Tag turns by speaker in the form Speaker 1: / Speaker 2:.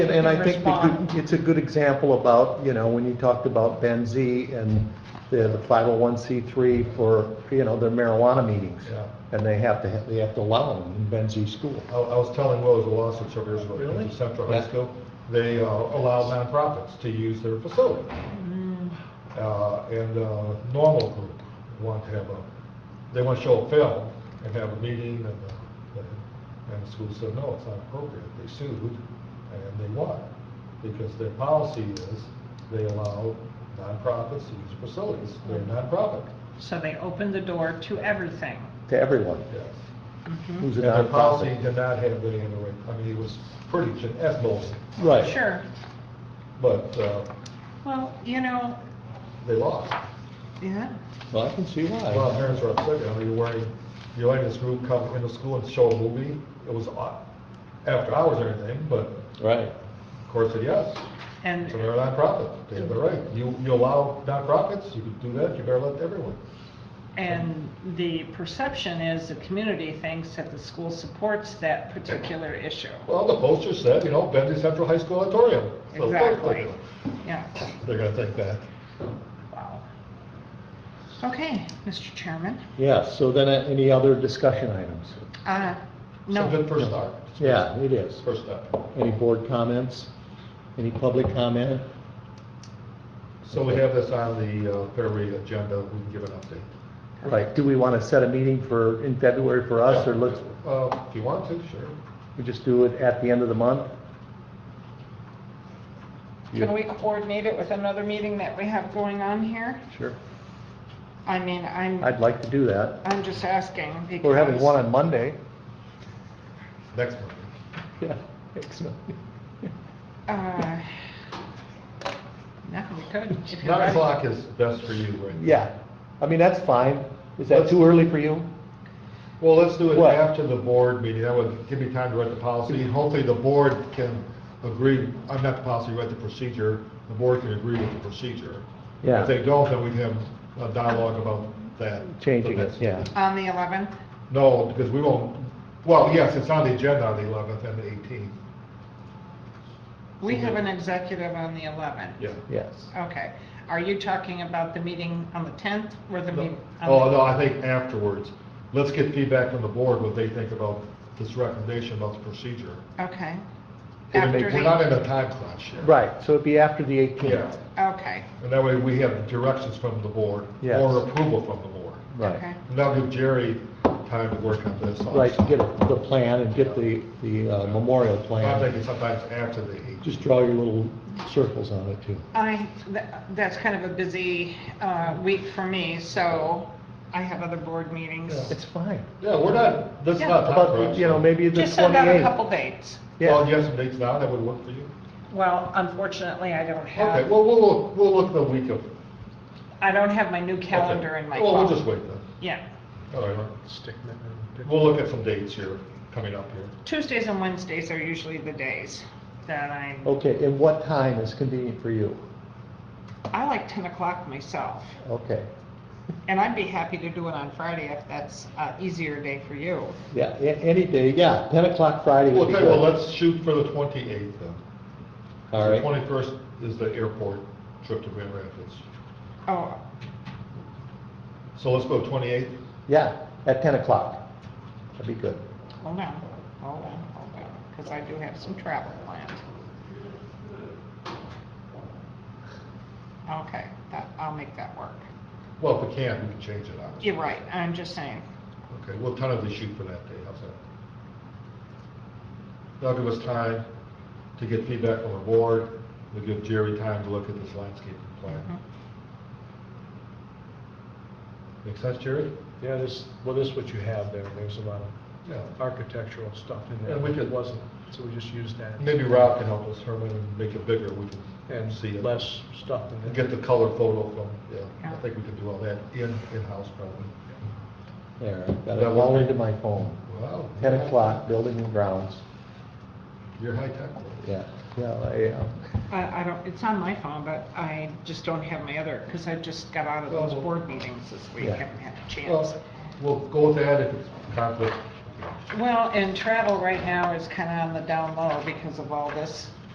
Speaker 1: And, and I think the
Speaker 2: respond.
Speaker 1: good- it's a good example about, you know, when you talked about Ben Z and the, the five oh one C three for, you know, their marijuana meetings.
Speaker 3: Yeah.
Speaker 1: And they have to, ha- they have to allow them in Ben Z school.
Speaker 3: I I was telling Will, there was a lawsuit several years ago.
Speaker 1: Really?
Speaker 3: at Central
Speaker 1: Yeah.
Speaker 3: High School. They uh, allow nonprofits to use their facility. Uh, And uh, Normal Group want to have a, they want to show a film and have a meeting, and, uh, and- and the school said, no, it's not appropriate. They sued, and they won, because their policy is they allow nonprofits to use facilities. They're a nonprofit,
Speaker 2: So they opened the door to everything.
Speaker 1: To everyone
Speaker 3: yes.
Speaker 1: who's a
Speaker 3: And their policy
Speaker 1: nonprofit.
Speaker 3: did not have any, other way. I mean, it was pretty, gen- as most
Speaker 1: Right.
Speaker 2: Sure.
Speaker 3: But uh,
Speaker 2: Well, you know,
Speaker 3: they lost.
Speaker 2: yeah,
Speaker 1: Well, I can see
Speaker 3: A lot of
Speaker 1: why.
Speaker 3: parents were upset, you know, you're wearing, you're letting this group come into school and show a movie. It was on- after hours or anything, but
Speaker 1: Right.
Speaker 3: the court said yes.
Speaker 2: and
Speaker 3: So they're a nonprofit, they have the right. You, you allow nonprofits, you can do that, you better let everyone.
Speaker 2: And the perception is the community thinks that the school supports that particular issue.
Speaker 3: Well, the poster said, you know, Bentley Central High School auditorium. So of course they're
Speaker 2: Exactly.
Speaker 3: gonna-
Speaker 2: Yeah,
Speaker 3: They're gonna think that.
Speaker 2: wow. Okay, Mr. Chairman,
Speaker 1: Yeah, so then uh, any other discussion items?
Speaker 2: uh,
Speaker 3: So good
Speaker 2: no,
Speaker 3: first start.
Speaker 1: Yeah, it is.
Speaker 3: First step.
Speaker 1: Any board comments? Any public comment?
Speaker 3: So we have this on the uh, February agenda, we can give an update.
Speaker 1: Right, do we want to set a meeting for, in February for us, or let's,
Speaker 3: Uh, If you want to, sure.
Speaker 1: we just do it at the end of the month?
Speaker 2: can we coordinate it with another meeting that we have going on here?
Speaker 1: Sure.
Speaker 2: I mean, I'm,
Speaker 1: I'd like to do that.
Speaker 2: I'm just asking because.
Speaker 1: We're having one on Monday.
Speaker 3: Next one.
Speaker 1: Yeah, excellent.
Speaker 2: Uh, No, we could. if you're
Speaker 3: Nine
Speaker 2: ready.
Speaker 3: o'clock is best for you, right?
Speaker 1: Yeah, I mean, that's fine. Is that too early for you?
Speaker 3: Well, let's do it
Speaker 1: What?
Speaker 3: after the board meeting, that would give me time to write the policy, and hopefully the board can agree, I'm not the policy, write the procedure, the board can agree with the procedure.
Speaker 1: Yeah.
Speaker 3: If they don't, then we can have a dialogue about that.
Speaker 1: Changing
Speaker 3: the
Speaker 1: it,
Speaker 3: next-
Speaker 1: yeah.
Speaker 2: On the 11th?
Speaker 3: No, because we won't, well, yes, it's on the agenda on the eleventh and the eighteenth,
Speaker 2: We
Speaker 3: So
Speaker 2: have
Speaker 3: we-
Speaker 2: an executive on the 11th.
Speaker 3: Mm-hmm. yeah.
Speaker 1: Yes.
Speaker 2: Okay, are you talking about the meeting on the 10th or the
Speaker 3: No.
Speaker 2: meeting?
Speaker 3: Oh, no, I think afterwards. Let's get feedback from the board, what they think about this recommendation about the procedure.
Speaker 2: Okay.
Speaker 3: We're
Speaker 2: After the-
Speaker 3: not in a time crunch here.
Speaker 1: Right, so it'd be after the
Speaker 3: Yeah,
Speaker 1: 18th.
Speaker 2: Okay,
Speaker 3: and that way we have directions from the board
Speaker 1: Yes.
Speaker 3: or approval from the board.
Speaker 1: Right,
Speaker 2: okay,
Speaker 3: And that'll give Jerry time to work on this also.
Speaker 1: right, to get the plan and get the, the uh, memorial
Speaker 3: I'm
Speaker 1: plan.
Speaker 3: thinking sometimes after the eight.
Speaker 1: Just draw your little circles on it too.
Speaker 2: I, tha- that's kind of a busy uh, week for me, so I have other board meetings.
Speaker 1: It's fine.
Speaker 3: Yeah, we're not, this is
Speaker 2: Yeah.
Speaker 3: not time
Speaker 1: About,
Speaker 3: crunch.
Speaker 1: you know, maybe the 28th.
Speaker 2: Just send out a couple dates.
Speaker 3: Well, do you have some dates now that would work for you?
Speaker 2: Well, unfortunately, I don't
Speaker 3: Okay,
Speaker 2: have,
Speaker 3: well, we'll, look- we'll look the week of. okay.
Speaker 2: I don't have my new calendar in my phone.
Speaker 3: Well, we'll just wait then.
Speaker 2: Yeah,
Speaker 3: All right, we'll look at some dates here, coming up here.
Speaker 2: Tuesdays and Wednesdays are usually the days that I'm,
Speaker 3: Oh.
Speaker 1: Okay, and what time is convenient for you?
Speaker 2: I like 10 o'clock myself.
Speaker 1: Okay,
Speaker 2: And I'd be happy to do it on Friday if that's an easier day for you.
Speaker 1: yeah, a- any day, yeah, 10 o'clock Friday would
Speaker 3: Well,
Speaker 1: be
Speaker 3: okay, well,
Speaker 1: good.
Speaker 3: let's shoot for the 28th then.
Speaker 1: All right.
Speaker 3: The 21st is the airport trip to Grand Rapids.
Speaker 2: Oh,
Speaker 3: So let's go 28th.
Speaker 1: Yeah, at 10 o'clock. That'd be good.
Speaker 2: hold on, hold on, hold on, because oh, I do have some travel planned. Okay, that, I'll make that work.
Speaker 3: Well, if we can, we can change it, obviously.
Speaker 2: You're right, I'm just saying.
Speaker 3: Okay, we'll tentatively shoot for that day, how's that? That'll give us time to get feedback from the board, we'll give Jerry time to look at this landscaping
Speaker 2: Mhm.
Speaker 3: plan. Make sense, Jerry?
Speaker 4: Yeah, this, well, this is what you have there, there's a lot of uh,
Speaker 3: Yeah.
Speaker 4: architectural stuff in there,
Speaker 3: And we
Speaker 4: which
Speaker 3: could-
Speaker 4: it wasn't, so we just used that.
Speaker 3: Maybe Rob can help us, Herman, and make it bigger, we can see
Speaker 4: And
Speaker 3: it.
Speaker 4: less stuff in
Speaker 3: And
Speaker 4: there.
Speaker 3: Get the color photo from, yeah,
Speaker 2: Yeah.
Speaker 3: I think we can do all that in, in-house probably.
Speaker 1: There, I've got it
Speaker 3: That work?
Speaker 1: all into my phone.
Speaker 3: Wow.
Speaker 1: 10 o'clock, building and grounds.
Speaker 3: You're high tech.
Speaker 1: Yeah, yeah, I um, am.
Speaker 2: I, I don't, it's on my phone, but I just don't have my other, because I just got out of those
Speaker 3: Well-
Speaker 2: board meetings this week,
Speaker 1: Yeah.
Speaker 2: haven't had a chance.
Speaker 3: Well, we'll go with that if it's conflict.
Speaker 2: Well, and travel right now is kind of on the down low because of all this